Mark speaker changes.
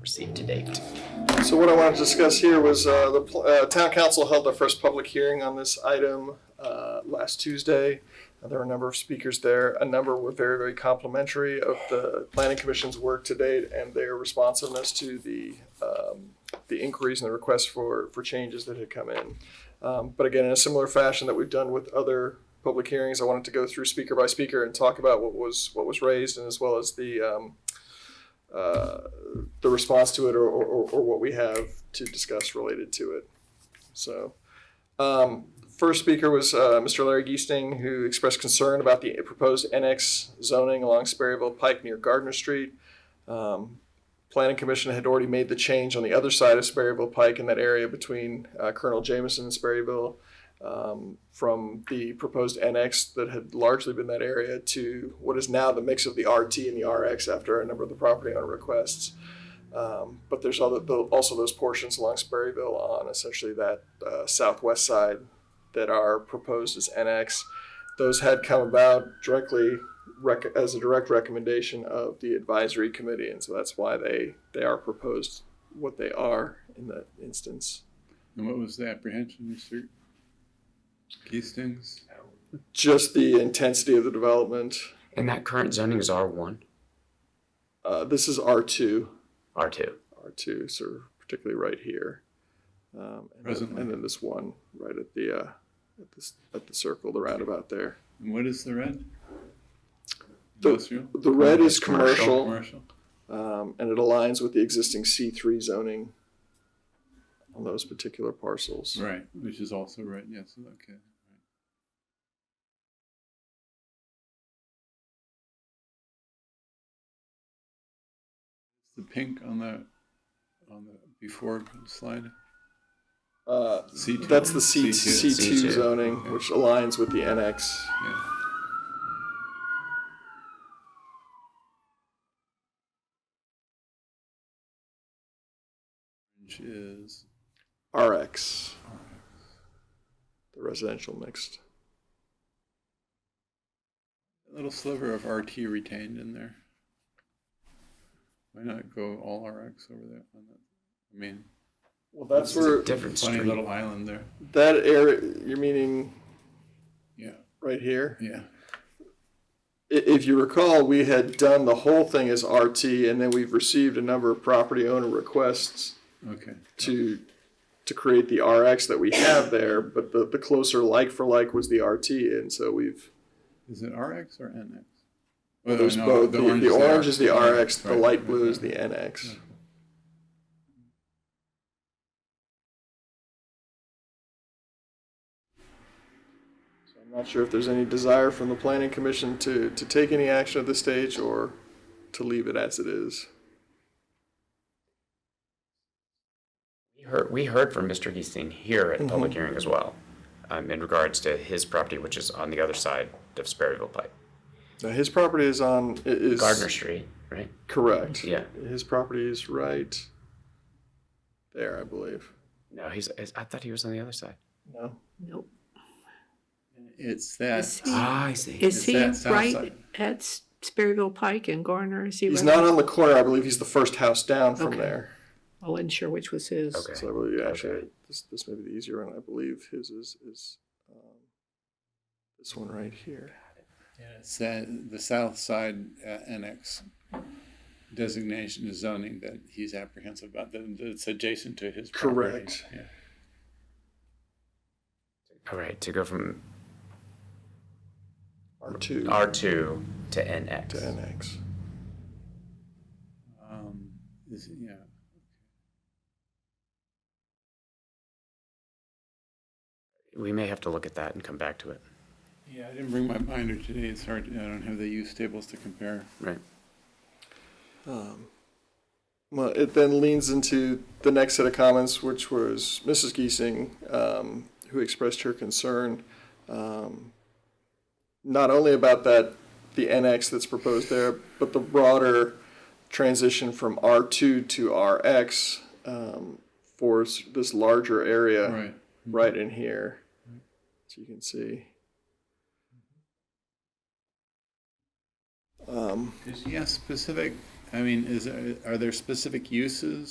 Speaker 1: received to date.
Speaker 2: So what I wanted to discuss here was uh, the pl- uh, town council held their first public hearing on this item uh, last Tuesday. Uh, There were a number of speakers there. A number were very, very complimentary of the planning commission's work to date and their responsiveness to the um, the inquiries and the requests for for changes that had come in. Um, but again, in a similar fashion that we've done with other public hearings, I wanted to go through speaker by speaker and talk about what was what was raised and as well as the um, uh, the response to it or, or, or what we have to discuss related to it. So, um, first speaker was uh, Mr. Larry Geesting, who expressed concern about the proposed NX zoning along Sperryville Pike near Gardner Street. Um, Planning Commission had already made the change on the other side of Sperryville Pike in that area between uh, Colonel Jameson and Sperryville um, from the proposed NX that had largely been that area to what is now the mix of the RT and the RX after a number of the property owner requests. Um, but there's other, tho- also those portions along Sperryville on essentially that uh, southwest side that are proposed as NX. Those had come about directly rec- as a direct recommendation of the advisory committee, and so that's why they they are proposed what they are in that instance.
Speaker 3: And what was the apprehension, Mr. Keystings?
Speaker 2: just the intensity of the development.
Speaker 1: And that current zoning is R1,
Speaker 2: Uh, this is R2,
Speaker 1: R2.
Speaker 2: R2, so particularly right here. Um, and, then,
Speaker 3: Presently.
Speaker 2: and then this one right at the uh, at, this, at the circle, the roundabout there.
Speaker 3: And what is the red?
Speaker 2: The-
Speaker 3: Industrial?
Speaker 2: The red is
Speaker 1: Commercial.
Speaker 2: commercial,
Speaker 3: Commercial?
Speaker 2: um, and it aligns with the existing C3 zoning on those particular parcels.
Speaker 3: Right, which is also red, yes, okay. The pink on the, on the before slide?
Speaker 2: Uh,
Speaker 3: C2.
Speaker 2: that's the C-
Speaker 3: C2.
Speaker 2: C2,
Speaker 1: C2.
Speaker 2: zoning,
Speaker 3: Okay.
Speaker 2: which aligns with the NX.
Speaker 3: Yeah. Which is,
Speaker 2: RX, the residential mixed.
Speaker 3: a little sliver of RT retained in there. Why not go all RX over there? on that? I mean,
Speaker 2: Well, that's where
Speaker 1: Different
Speaker 3: funny
Speaker 1: street.
Speaker 3: little island there.
Speaker 2: That area, you're meaning
Speaker 3: Yeah,
Speaker 2: right here?
Speaker 3: yeah.
Speaker 2: I- If you recall, we had done the whole thing as RT, and then we've received a number of property owner requests
Speaker 3: Okay.
Speaker 2: to, to create the RX that we have there, but the, the closer like for like was the RT, and so we've,
Speaker 3: Is it RX or NX? Well,
Speaker 2: there's
Speaker 3: no,
Speaker 2: both, the the orange is the RX, the
Speaker 3: Right,
Speaker 2: light
Speaker 3: right,
Speaker 2: blue is
Speaker 3: right.
Speaker 2: the NX. So I'm not sure if there's any desire from the planning commission to, to take any action at this stage or to leave it as it is.
Speaker 1: We heard, we heard from Mr. Geesting here at public hearing as well, um, in regards to his property, which is on the other side of Sperryville Pike.
Speaker 2: Now, his property is on, i- is.
Speaker 1: Gardner Street, right?
Speaker 2: Correct.
Speaker 1: Yeah.
Speaker 2: His property is right there, I believe.
Speaker 1: No, he's, is- I thought he was on the other side.
Speaker 2: No?
Speaker 4: Nope.
Speaker 3: It's that.
Speaker 4: Is he,
Speaker 1: Ah, I see.
Speaker 4: is he
Speaker 3: that south
Speaker 4: right
Speaker 3: side?
Speaker 4: at S- Sperryville Pike and Garner? Is he
Speaker 2: He's
Speaker 4: right?
Speaker 2: not on the corner, I believe he's the first house down from
Speaker 4: Okay.
Speaker 2: there.
Speaker 4: I wasn't sure which was his.
Speaker 1: Okay.
Speaker 2: So I believe, yeah, actually,
Speaker 1: Okay.
Speaker 2: this, this may be the easier one, I believe his is, is, um, this one right here.
Speaker 3: Yeah, It's that, the south side uh, annex designation is zoning that he's apprehensive about, that it's adjacent to his property.
Speaker 2: Correct.
Speaker 3: Yeah.
Speaker 1: All right, to go from
Speaker 2: R two
Speaker 1: R2 to
Speaker 2: to
Speaker 1: NX.
Speaker 2: NX.
Speaker 3: Um, is, yeah.
Speaker 1: We may have to look at that and come back to it,
Speaker 3: Yeah, I didn't bring my binder today. It's hard, I don't have the use tables to compare.
Speaker 1: right?
Speaker 2: Um, Well, it then leans into the next set of comments, which was Mrs. Giesing, um, who expressed her concern um, not only about that the NX that's proposed there, but the broader transition from R2 to RX um, for s- this larger area
Speaker 3: Right.
Speaker 2: right in here, as you can see. Um, Um,
Speaker 3: Is he a specific I mean, is, there- are there specific uses